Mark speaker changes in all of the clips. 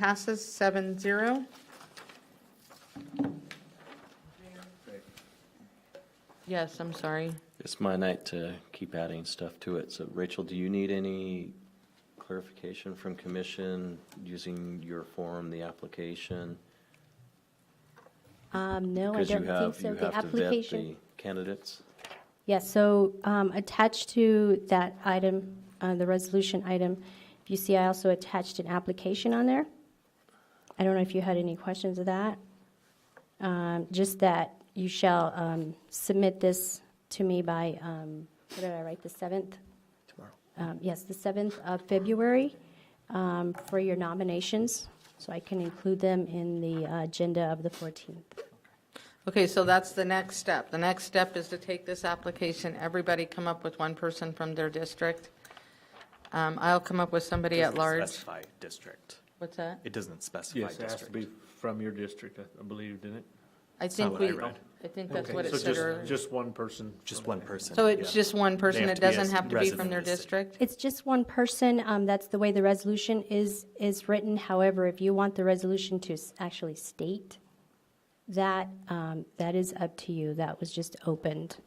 Speaker 1: Passes seven zero. Yes, I'm sorry.
Speaker 2: It's my night to keep adding stuff to it. So Rachel, do you need any clarification from commission using your form, the application?
Speaker 3: Um, no, I
Speaker 2: Because you
Speaker 3: don't think
Speaker 2: have,
Speaker 3: so.
Speaker 2: you
Speaker 3: The
Speaker 2: have to vet
Speaker 3: application.
Speaker 2: the candidates.
Speaker 3: Yes, so, um, attached to that item, uh, the resolution item, if you see, I also attached an application on there. I don't know if you had any questions of that. Um, just that you shall, um, submit this to me by, um, what did I write, the seventh? Tomorrow. Um, yes, the seventh of February, um, for your nominations, so I can include them in the uh, agenda of the fourteenth.
Speaker 1: Okay, so that's the next step. The next step is to take this application, everybody come up with one person from their district. Um, I'll come up with somebody at
Speaker 4: doesn't
Speaker 1: large.
Speaker 4: Specify district.
Speaker 1: What's that?
Speaker 4: It doesn't specify
Speaker 5: Yes, it has to be
Speaker 4: district.
Speaker 5: from your district, I- I believe, didn't it?
Speaker 1: I think
Speaker 4: what I
Speaker 1: we,
Speaker 4: read.
Speaker 1: I think that's
Speaker 5: Okay,
Speaker 1: what it
Speaker 5: so
Speaker 1: said
Speaker 5: just-
Speaker 1: earlier.
Speaker 5: Just one person.
Speaker 4: Just one person.
Speaker 1: So it's
Speaker 4: yeah.
Speaker 1: just one person,
Speaker 4: have
Speaker 1: it
Speaker 4: to be a
Speaker 1: doesn't have to be from
Speaker 4: resident
Speaker 1: their
Speaker 4: of the city.
Speaker 1: district?
Speaker 3: It's just one person, um, that's the way the resolution is, is written. However, if you want the resolution to s- actually state that, um, that is up to you. That was just opened.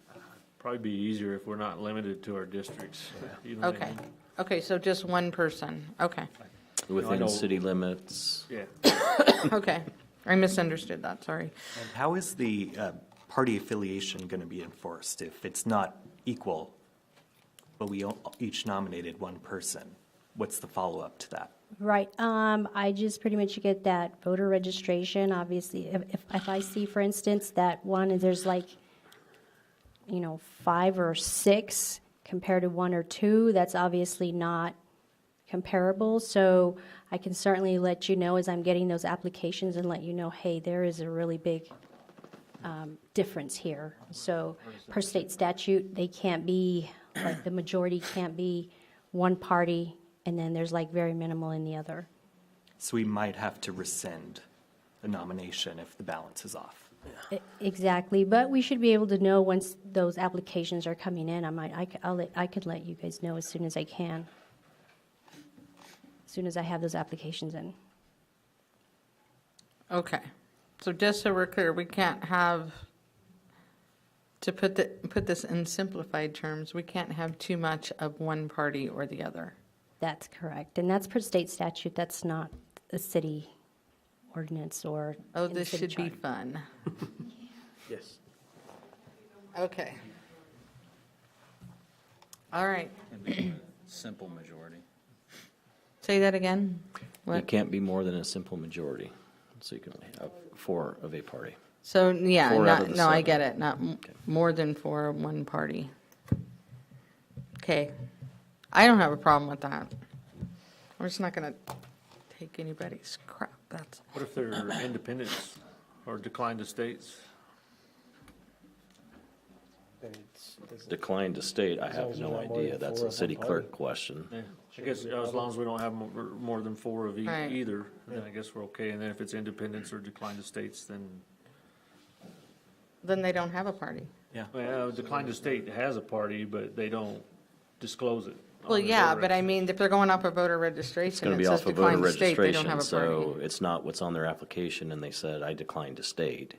Speaker 5: Probably be easier if we're not limited to our districts. you know what I
Speaker 1: Okay,
Speaker 5: mean?
Speaker 1: okay, so just one person, okay,
Speaker 2: Within
Speaker 5: don't-
Speaker 2: city limits,
Speaker 5: Yeah,
Speaker 1: okay. I misunderstood that, sorry.
Speaker 4: And How is the uh, party affiliation going to be enforced if it's not equal, but we all- each nominated one person? What's the follow-up to that?
Speaker 3: Right, um, I just pretty much get that voter registration, obviously. If, if- if I see, for instance, that one, there's like, you know, five or six compared to one or two, that's obviously not comparable. So I can certainly let you know as I'm getting those applications and let you know, hey, there is a really big um, difference here. So per state statute, they can't be, like, the majority can't be one party, and then there's like very minimal in the other.
Speaker 4: So we might have to rescind a nomination if the balance is off.
Speaker 3: E- Exactly, but we should be able to know once those applications are coming in. I might, I c- I'll let- I could let you guys know as soon as I can. As Soon as I have those applications in.
Speaker 1: Okay, so just so we're clear, we can't have, to put the, put this in simplified terms, we can't have too much of one party or the other.
Speaker 3: That's correct, and that's per state statute, that's not a city ordinance or.
Speaker 1: Oh,
Speaker 3: in the
Speaker 1: this
Speaker 3: city
Speaker 1: should be
Speaker 3: charter.
Speaker 1: fun.
Speaker 5: yes.
Speaker 1: Okay. All right,
Speaker 6: Simple majority.
Speaker 1: say that again?
Speaker 2: it
Speaker 1: What?
Speaker 2: can't be more than a simple majority. So you can only have four of a party.
Speaker 1: So, yeah,
Speaker 2: Four out of
Speaker 1: not,
Speaker 2: the
Speaker 1: no, I
Speaker 2: seven.
Speaker 1: get it, not m- more than four, of one party. Okay, I don't have a problem with that. I'm just not gonna take anybody's crap, that's,
Speaker 5: What if they're independents or decline to states?
Speaker 2: Decline to state, I have
Speaker 7: as you're
Speaker 2: no
Speaker 7: not more than
Speaker 2: idea. That's
Speaker 7: four
Speaker 2: a
Speaker 7: of one
Speaker 2: city
Speaker 7: party.
Speaker 2: clerk question.
Speaker 5: Yeah, I guess as long as we don't have mo- more than four of e-
Speaker 1: Right.
Speaker 5: either, then I guess we're okay. And then if it's independents or decline to states, then,
Speaker 1: then they don't have a party.
Speaker 4: Yeah.
Speaker 5: well, decline to state has a party, but they don't disclose it. on
Speaker 1: Well,
Speaker 5: the
Speaker 1: yeah,
Speaker 5: voter
Speaker 1: but I mean, if they're going off a voter registration,
Speaker 2: Going to
Speaker 1: it
Speaker 2: be
Speaker 1: says
Speaker 2: off of voter
Speaker 1: decline to state, they don't have
Speaker 2: registration,
Speaker 1: a
Speaker 2: so
Speaker 1: party.
Speaker 2: it's not what's on their application and they said, I declined to state.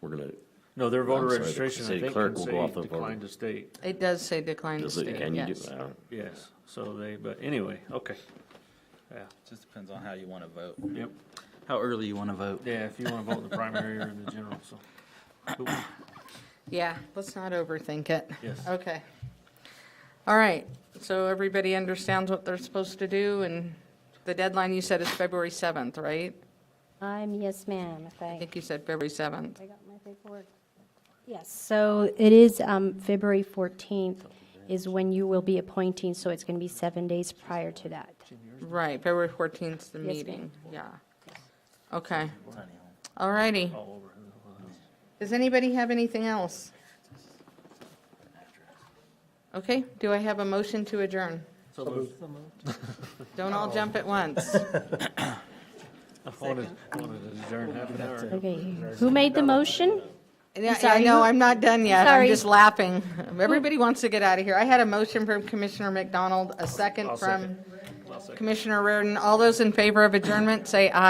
Speaker 2: We're going to,
Speaker 5: No, their voter
Speaker 2: I'm sorry, the
Speaker 5: registration, I
Speaker 2: city
Speaker 5: think,
Speaker 2: clerk
Speaker 5: can
Speaker 2: will go
Speaker 5: say
Speaker 2: off the voter-
Speaker 5: decline to state.
Speaker 1: It does say decline to
Speaker 2: does it,
Speaker 1: state,
Speaker 2: can you do?
Speaker 1: yes.
Speaker 2: I don't-
Speaker 5: Yes, so they, but anyway, okay. Yeah,
Speaker 6: Just depends on how you want to vote,
Speaker 5: yep,
Speaker 6: how early you want to vote.
Speaker 5: yeah, if you want to vote in the primary or in the general, so. Cool.
Speaker 1: Yeah, let's not overthink it.
Speaker 5: Yes.
Speaker 1: Okay. All right, so everybody understands what they're supposed to do, and the deadline you said is February 7th, right?
Speaker 3: I'm, yes, ma'am, if
Speaker 1: I think you said February 7th.
Speaker 3: I got my paperwork. Yes, so it is um, February 14th is when you will be appointing, so it's going to be seven days prior to that.
Speaker 1: Right, February 14th is the
Speaker 3: Yes, ma'am.
Speaker 1: meeting, yeah. Okay. All righty. Does anybody have anything else? Okay, do I have a motion to adjourn?
Speaker 5: So moved.
Speaker 1: Don't all jump at once.
Speaker 5: I wanted, wanted to adjourn half an hour.
Speaker 3: Okay, who made the motion?
Speaker 1: Yeah, I
Speaker 3: sorry,
Speaker 1: know,
Speaker 3: who-
Speaker 1: I'm not done yet, I'm
Speaker 3: Sorry.
Speaker 1: just laughing. Everybody wants to get out of here. I had a motion from Commissioner McDonald, a second
Speaker 5: I'll
Speaker 1: from
Speaker 5: second. second.
Speaker 1: Commissioner Reardon, all those in favor of adjournment, say aye.